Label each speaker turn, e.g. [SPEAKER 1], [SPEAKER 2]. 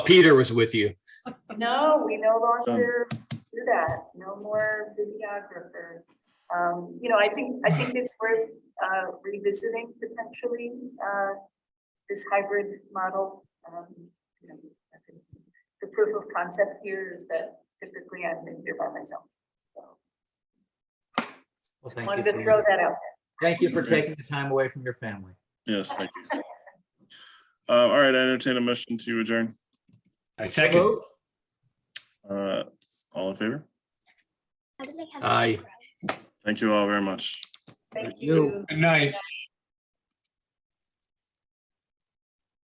[SPEAKER 1] Peter was with you.
[SPEAKER 2] No, we no
[SPEAKER 3] Done.
[SPEAKER 2] longer do that. No more videographer. Um, you know, I think, I think it's worth uh, revisiting potentially, uh, this hybrid model. Um, you know, I think The proof of concept here is that typically I'm in here by myself. So
[SPEAKER 4] Well, thank you.
[SPEAKER 2] Wanted to
[SPEAKER 4] for
[SPEAKER 2] throw
[SPEAKER 4] your-
[SPEAKER 2] that out.
[SPEAKER 4] Thank you for
[SPEAKER 3] Okay.
[SPEAKER 4] taking the time away from your family.
[SPEAKER 3] Yes, thank you. Uh, all right, I entertain a motion to adjourn.
[SPEAKER 1] I second.
[SPEAKER 4] Vote?
[SPEAKER 3] Uh, all in favor?
[SPEAKER 5] How do they have?
[SPEAKER 1] Aye.
[SPEAKER 3] Thank you all very much.
[SPEAKER 2] Thank
[SPEAKER 4] You.
[SPEAKER 2] you.
[SPEAKER 1] Good night.